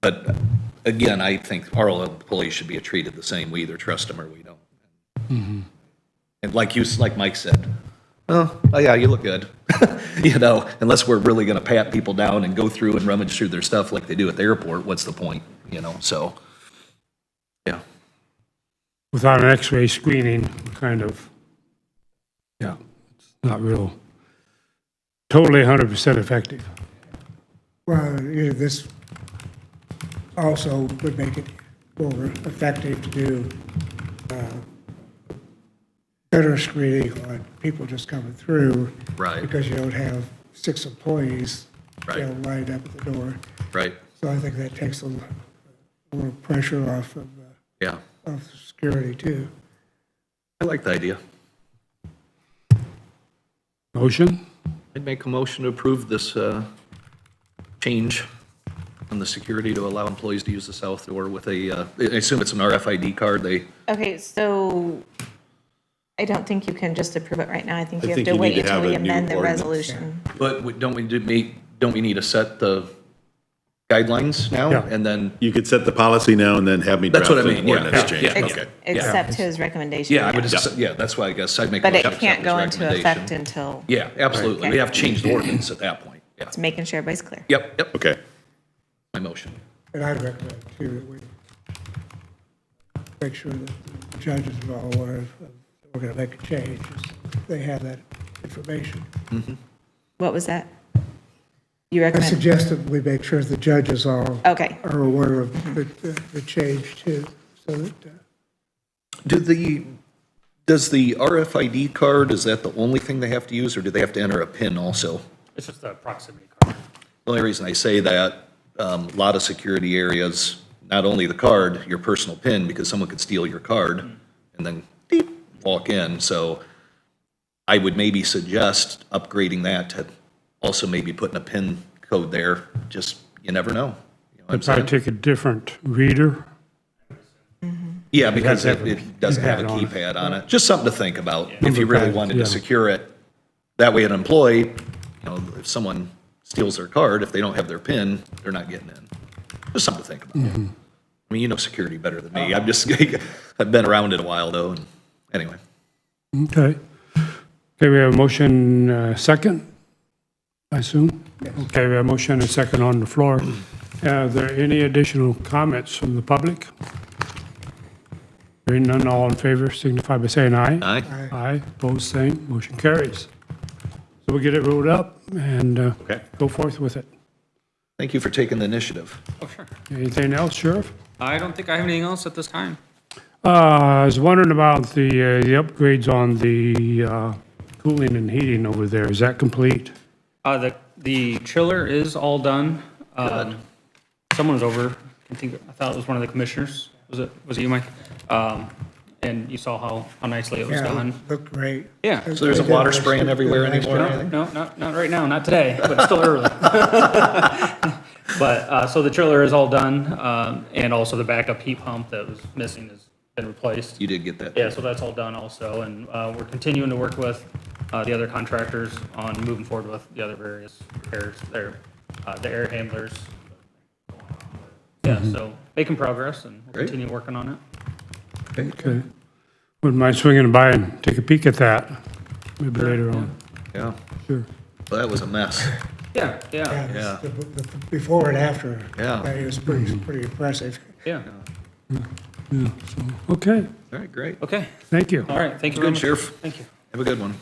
But again, I think all employees should be treated the same. We either trust them or we don't. Mm-hmm. And like you, like Mike said, oh, oh yeah, you look good. You know, unless we're really going to pat people down and go through and rummage through their stuff like they do at the airport, what's the point? You know, so, yeah, without an x-ray screening, we're kind of, yeah, it's not real, totally 100% effective. Well, yeah, this also would make it more effective to do uh, better screening on people just coming through. Right. Because you don't have six employees, you Right. know, lined up at the door. right, So I think that takes a l- a little pressure off of, uh, yeah. of security too. I like the idea. Motion? I'd make a motion to approve this uh, change in the security to allow employees to use the south door with a, uh, I assume it's an RFID card, they, Okay, so I don't think you can just approve it right now. I think you I have think to you wait need to until have we a new amend the ordinance. resolution. but we- don't we do, me- don't we need to set the guidelines now? Yeah. And then, You could set the policy now and then have me That's draft what I an mean, yeah, yeah, ordinance change. yeah. Ex- Okay. Accept his recommendation. yeah, I would, yes. just- yeah, that's why I guess I'd make. a But it motion to accept can't this go into recommendation. effect until, Yeah, absolutely. We Okay. have changed the ordinance at that point. Yeah. it's making sure everybody's clear. Yep, yep, Okay. my motion. And I'd recommend too that we make sure that the judges are all aware of, of- we're going to make a change. is They have that information. What was that? You I recommend, suggested we make sure the judges are, okay. are aware of the, the- the change too, so that, uh, Do the, does the RFID card, is that the only thing they have to use, or do they have to enter a PIN also? It's just a proximity card. The only reason I say that, um, a lot of security areas, not only the card, your personal PIN, because someone could steal your card and then beep, walk in. So I would maybe suggest upgrading that to also maybe putting a PIN code there. Just, you never know. You know what I'm If I saying? take a different reader, Yeah, because does it have a it doesn't have a keypad on it. keypad on it. Just something to think about if you Number really pad, wanted to yeah. secure it. That way an employee, you know, if someone steals their card, if they don't have their PIN, they're not getting in. Just something to think about. Mm-hmm. I mean, you know security better than me. I'm just, I've been around it a while though, and anyway. okay. Okay, we have a motion uh, second, I assume? Okay, we have a motion and a second on the floor. Are there any additional comments from the public? Hearing none, all in favor signify by saying aye. Aye, Aye, opposed, same, motion carries. So we get it rolled up and uh, Okay. go forth with it. thank you for taking the initiative. Oh, sure. Anything else, Sheriff? I don't think I have anything else at this time. Uh, I was wondering about the uh, the upgrades on the uh, cooling and heating over there. Is that complete? Uh, the, the chiller is all done. Um, someone was over, I think, I thought it was one of the commissioners. Was it, was it you, Mike? Um, and you saw how, how nicely it was yeah, done. look great. Yeah. So there's a water spraying everywhere anymore? No, no, not, not right now, not today, but it's still early. But, uh, so the chiller is all done, um, and also the backup heat pump that was missing has been replaced. You did get that. Yeah, so that's all done also, and uh, we're continuing to work with uh, the other contractors on moving forward with the other various repairs there, uh, the air handlers. Yeah, so making progress and we'll Great. continue working on it. Okay. Wouldn't mind swinging by and take a peek at that, maybe later on. Yeah, Sure. Well, that was a mess. Yeah, yeah, Yeah. Yeah, the- the- the Before and after. Yeah. It was pretty, pretty impressive. yeah. Okay, All right, great. Okay, thank you. all right, thank you very Good, much. Sheriff. Thank you. Have a good one.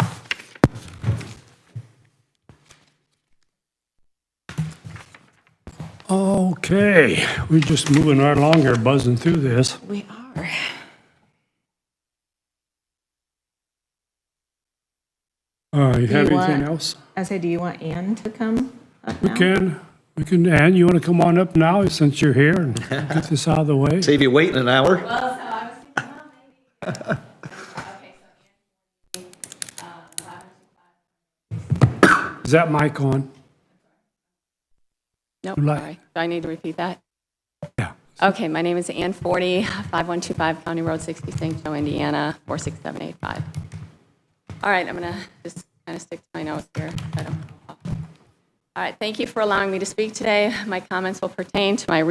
Okay, we're just moving right along here, buzzing through this. We are. Uh, You have You want- anything else? I say, do you want Ann to come up We now? can, we can, Ann, you want to come on up now since you're here and get this out of the way? Save you waiting an hour. Well, so I was thinking, well, maybe. Okay, so, uh, eleven Is that mic on? Nope, Good luck. sorry. Do I need to repeat that? Yeah. Okay, my name is Ann Forty, 5125 County Road 60, St. Joe, Indiana, 46785. All right, I'm going to just kind of stick to my notes here. so I don't- All right, thank you for allowing me to speak today. My comments will pertain to my